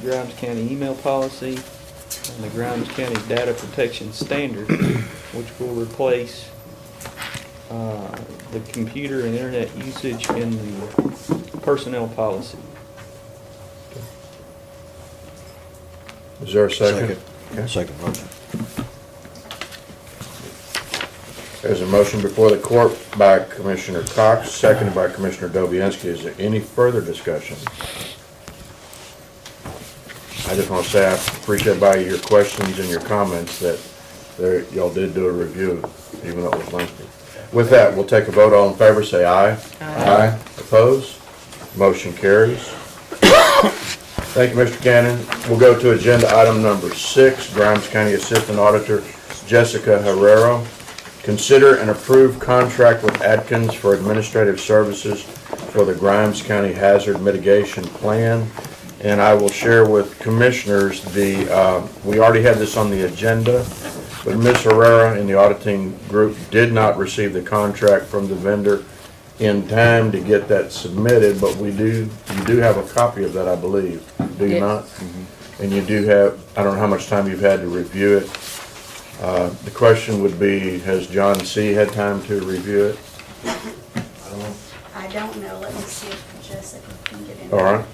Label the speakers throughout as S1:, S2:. S1: Grimes County email policy and the Grimes County data protection standard, which will replace uh, the computer and internet usage in the personnel policy.
S2: Is there a second? Okay.
S3: Second motion.
S2: There's a motion before the court by Commissioner Cox, seconded by Commissioner Dobianski. Is there any further discussion? I just want to say I appreciate by your questions and your comments that there, y'all did do a review, even though it was lengthy. With that, we'll take a vote. All in favor, say aye. Aye. Opposed? Motion carries. Thank you, Mr. Cannon. We'll go to agenda item number six, Grimes County Assistant Auditor Jessica Herrero. Consider and approve contract with Atkins for administrative services for the Grimes County Hazard Mitigation Plan. And I will share with commissioners the, uh, we already had this on the agenda, but Ms. Herrera and the auditing group did not receive the contract from the vendor in time to get that submitted, but we do, you do have a copy of that, I believe, do you
S4: Yes.
S2: not? And you do have, I don't know how much time you've had to review it. Uh, The question would be, has John C. had time to review it?
S5: I don't know, let me see if Jessica can get in.
S2: All right.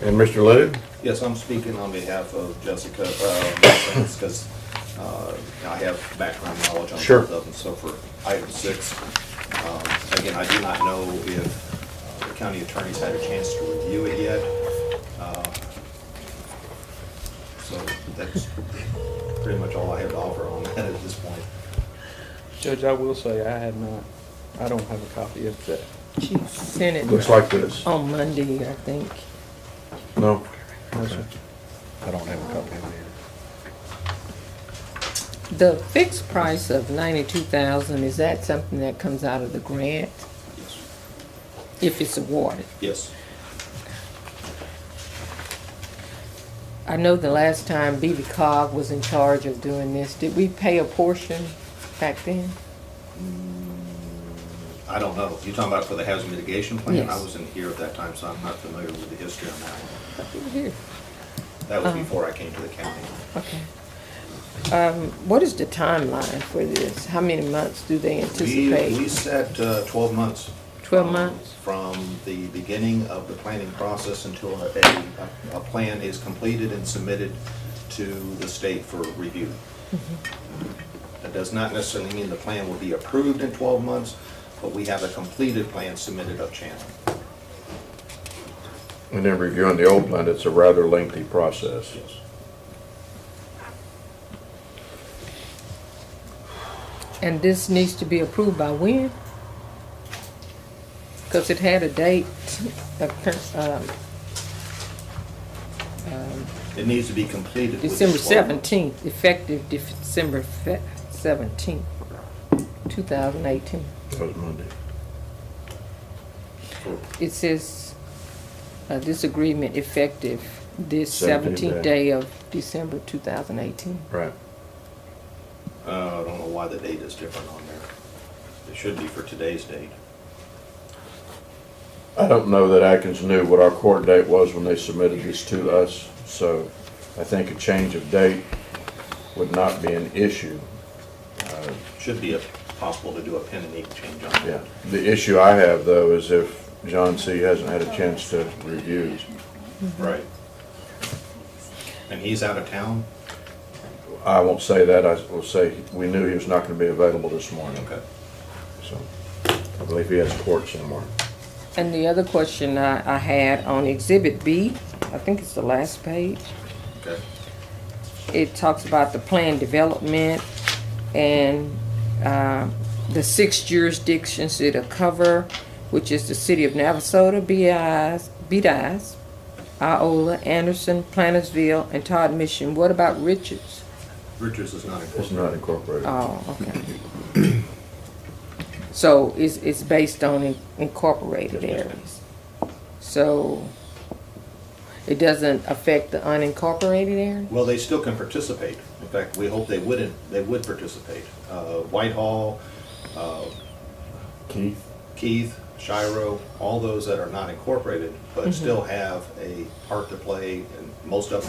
S2: And Mr. Lou?
S6: Yes, I'm speaking on behalf of Jessica, uh, because uh, I have background knowledge on
S2: Sure.
S6: both of them. So for item six, um, again, I do not know if uh, the county attorney's had a chance to review it yet. Uh, So that's pretty much all I have to offer on that at this point.
S1: Judge, I will say I have not, I don't have a copy of that.
S4: She sent
S2: Looks
S4: it
S2: like this.
S4: on Monday, I think.
S2: No?
S3: I don't have a copy of it
S4: The fixed price of ninety-two thousand, is that something that comes out of the grant
S6: Yes.
S4: if it's awarded?
S6: Yes.
S4: I know the last time B.B. Cog was in charge of doing this, did we pay a portion back then?
S6: I don't know. You're talking about for the hazard mitigation plan?
S4: Yes.
S6: I wasn't here at that time, so I'm not familiar with the history on that one.
S4: Here.
S6: That was
S4: Uh-huh.
S6: before I came to the county.
S4: Okay. Um, what is the timeline for this? How many months do they
S6: We, we
S4: anticipate?
S6: set uh, 12 months.
S4: 12
S6: um,
S4: months?
S6: From the beginning of the planning process until a, a- a plan is completed and submitted to the state for review.
S4: Mm-hmm.
S6: That does not necessarily mean the plan will be approved in 12 months, but we have a completed plan submitted up channel.
S2: And then reviewing the old plan, it's a rather lengthy process.
S4: And this needs to be approved by when? Cause it had a date, a cur- um,
S6: It needs to be completed. within
S4: December
S6: 12 months.
S4: seventeenth, effective December seventeenth, two thousand eighteen.
S2: That was Monday.
S4: It says, uh, this agreement effective this
S2: 17th
S4: seventeenth
S2: day.
S4: day of December two thousand eighteen.
S2: Right.
S6: Uh, I don't know why the date is different on there. It should be for today's date.
S2: I don't know that Atkins knew what our court date was when they submitted this to us, so I think a change of date would not be an issue.
S6: Should be a- possible to do a pen and ink change on
S2: Yeah,
S6: that.
S2: the issue I have, though, is if John C. hasn't had a chance to review.
S6: Right. And he's out of town?
S2: I won't say that, I will say, we knew he was not gonna be available this morning,
S6: Okay.
S2: so I believe he has court somewhere.
S4: And the other question I, I had on exhibit B, I think it's the last page.
S6: Okay.
S4: it talks about the plan development and um, the six jurisdictions it'll cover, which is the city of Navasota, BI's, BDI's, Iola, Anderson, Plantersville, and Todd Mission. What about Richards?
S6: Richards is not incorporated.
S2: It's not incorporated.
S4: Oh, okay. So it's, it's based on in- incorporated areas. So it doesn't affect the unincorporated area?
S6: Well, they still can participate. In fact, we hope they wouldn't, they would participate. Uh, Whitehall,
S2: Keith?
S6: Keith, Shiro, all those that are not incorporated, but still have a part to play, and most of them